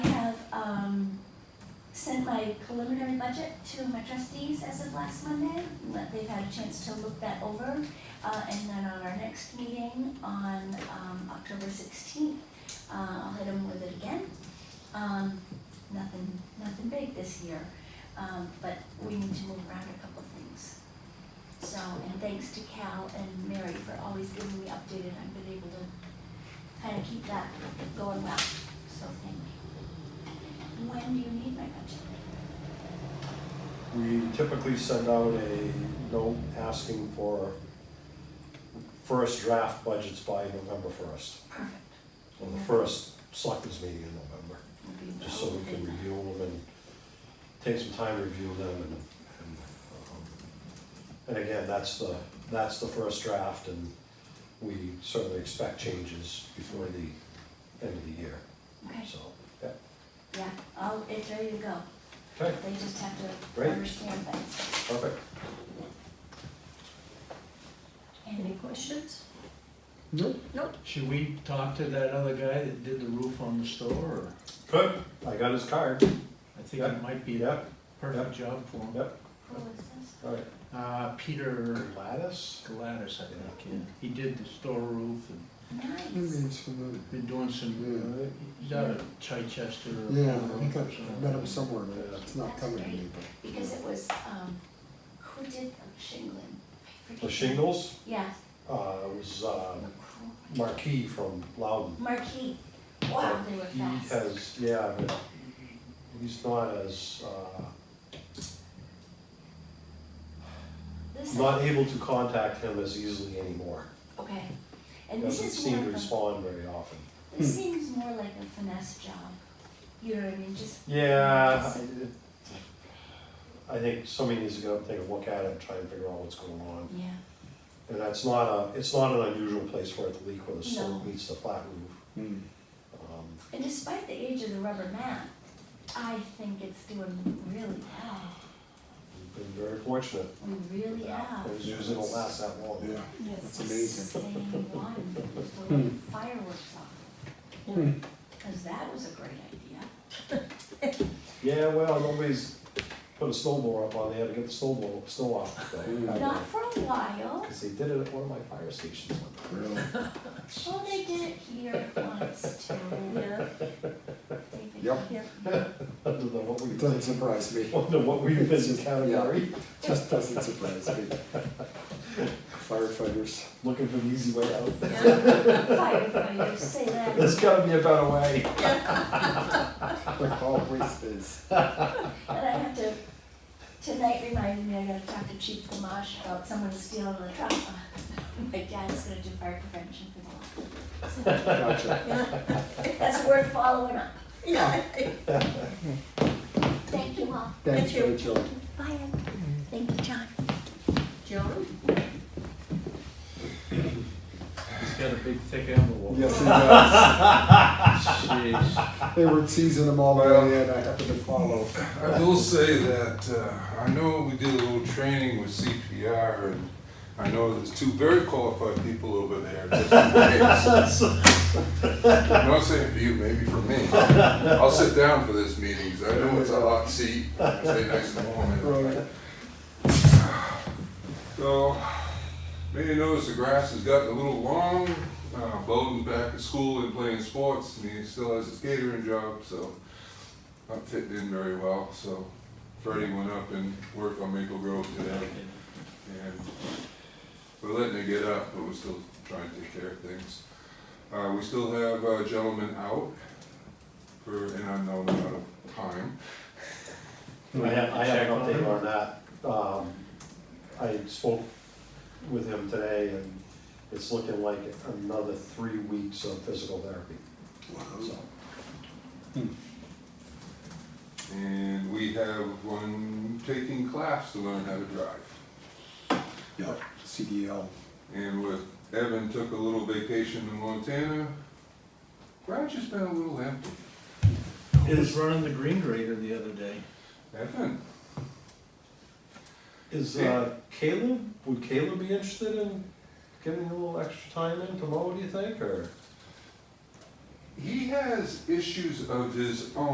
um, sent my preliminary budget to my trustees as of last Monday, let, they've had a chance to look that over. Uh, and then on our next meeting on, um, October sixteenth, uh, I'll hit them with it again. Um, nothing, nothing big this year, um, but we need to move around a couple things. So, and thanks to Cal and Mary for always giving me updated, I've been able to kind of keep that going well, so thank you. When do you need my budget? We typically send out a note asking for first draft budgets by November first, Perfect. or the first selectmen's meeting in November, Would be just so we can relevant. review them and take some time to review them and, and, um, and again, that's the, that's the first draft and we certainly expect changes before the end of the year, Okay, so, yeah, yeah, I'll, it's ready to go, okay, they just have to Great. understand that. perfect. Any questions? Should we talk to that other guy that did the roof on the store, or, Good, I got his card, I think Yeah. it might be a yep, perfect job for him. Yep. Who is this? all right. Uh, Peter Gladys? Gladys, I think, yeah, he did the store roof and Mm-hmm. Nice. Maybe it's familiar. been doing some, Alright. he's out of Chichester. or Yeah, I think Colorado or I've met something. him somewhere, but it's not coming to me, but. Because it was, um, who did the shingling? I forget. The shingles, Yeah. uh, was, uh, Marquis from Loudon. Marquee, wow, they were He fast. has, yeah, but he's not as, uh, This, not able to contact him as easily anymore. okay, and this Doesn't is seem more to of a- respond very often. This seems more like a finesse job. You know what I mean? Just Yeah, I- it- I think somebody needs to go and take a look at it and try and figure out what's going on. yeah. And that's not a, it's not an unusual place for it to leak where the No. slope meets the flat roof. Hmm. Um, And despite the age of the rubber mat, I think it's doing really well. We've been very fortunate. We with really that. have. Those usually don't last that long. Yeah, Yes. that's amazing. Same one. We're like fireworks off. Hmm. Because that was a great idea. Yeah, well, nobody's put a snowblower up on there to get the snowball, snow off. Not for a while. Because they did it at one of my fire stations. Really? Oh, they did it here once too. Yeah, They did Yep. it. yeah. Under the what It we, doesn't surprise me, under what we visit category, just doesn't surprise me. Firefighters. looking for the easy way out. Firefighters say that. There's gotta be a better way. Like always is. And I have to, tonight reminded me I gotta talk to Chief Gamache about someone stealing the truck. My dad's gonna do fire prevention for the law. Gotcha. So That's worth following up. Yeah. Thank you all. Thanks, Thank you. Rachel. Bye. Ed. Thank you, John. John? He's got a big thick envelope. Yes, he does. Jeez. They were teasing him all the way in, I happened to follow. I will say that uh, I know we did a little training with CPR, and I know there's two very qualified people over there. Just in case. I'm not saying for you, maybe for me. I'll sit down for this meeting. 'cause I know it's a hot seat. I Stay nice and warm. and- Right. So, may you notice the grass has gotten a little long. Uh, Bowden's back at school and playing sports, and he still has his catering job, so not fitting in very well. So, Freddie went up and worked on Maple Grove today, and we're letting it get up, but we're still trying to take care of things. Uh, we still have a gentleman out for an unknown amount of time. I have, I have an update on that. Um, I spoke with him today and it's looking like another three weeks of physical therapy. So, And we have one taking class to learn how to drive. Yeah, CDL. And with Evan took a little vacation to Montana, garage has been a little empty. He was running the green grader the other day. Evan, Is uh, Caleb, would Caleb be interested in getting a little extra time in tomorrow, do you think, or? he has issues of his own.